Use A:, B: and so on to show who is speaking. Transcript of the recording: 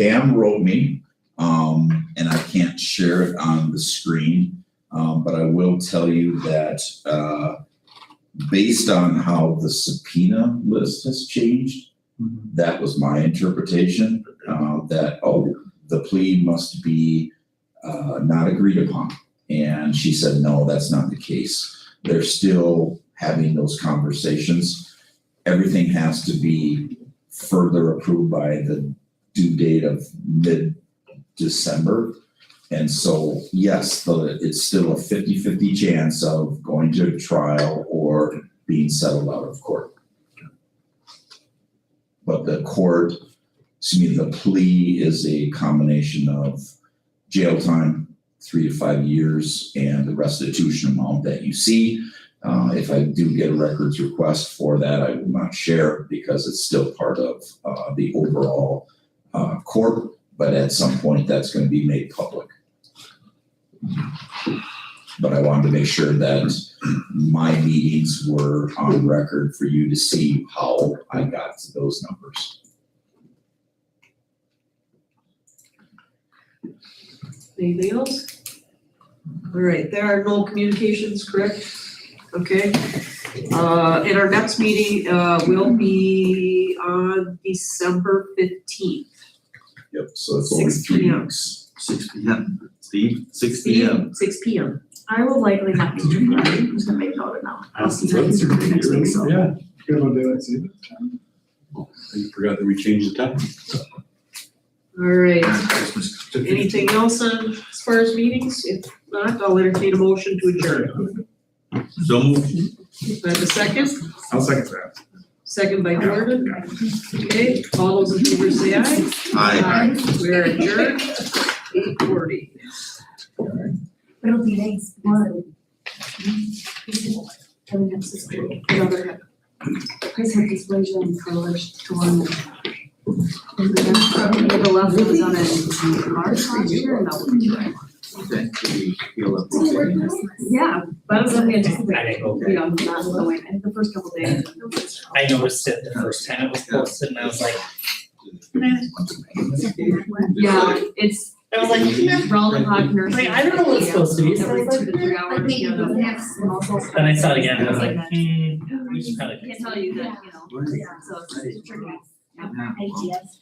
A: Pam wrote me, um, and I can't share it on the screen, um, but I will tell you that, uh, based on how the subpoena list has changed,
B: Mhm.
A: that was my interpretation, uh, that, oh, the plea must be, uh, not agreed upon. And she said, no, that's not the case. They're still having those conversations. Everything has to be further approved by the due date of mid-December. And so, yes, the, it's still a 50-50 chance of going to trial or being settled out of court. But the court, excuse me, the plea is a combination of jail time, three to five years, and the restitution amount that you see. Uh, if I do get a records request for that, I will not share because it's still part of, uh, the overall uh, court, but at some point that's gonna be made public. But I wanted to make sure that my meetings were on record for you to see how I got to those numbers.
C: Anything else? All right, there are no communications, correct? Okay. Uh, and our next meeting, uh, will be on December fifteenth.
A: Yep, so it's only three
C: 6 p.m.
A: weeks.
B: Six P M, Steve, six P M.
C: Six P M.
D: I will likely not be here, but I'm just gonna make note of now. I'll see you guys next week, so.
E: Yeah, good one, daylight saving time.
F: I forgot that we changed the time.
C: All right,
B: Christmas.
C: anything else on, as far as meetings? If not, I'll entertain a motion to adjourn.
B: So moved.
C: Do I have a second?
E: I'll second that.
C: Second by Jordan. Okay, all those in favor say aye. We are adjourned, eight forty.
D: It'll be nice. One. Coming up this week, another. Price of displays and colors to one. And the next one, the left one was on a March last year, and that one was right. Yeah, that was what we
G: I
D: anticipated,
G: didn't go
D: you know, not the way, and the first couple days.
G: I noticed it the first time it was posted and I was like,
D: Yeah, it's
G: I was like,
D: Roland Hawk nursing.
G: Wait, I don't know what it's supposed to be. So I
D: Every
G: was
D: two to three hours. you know, and also-
G: then I saw it again and I was like, hmm, we should probably.
D: Can't tell you that, you know, so it's tricky.
B: Yeah.
D: Ideas.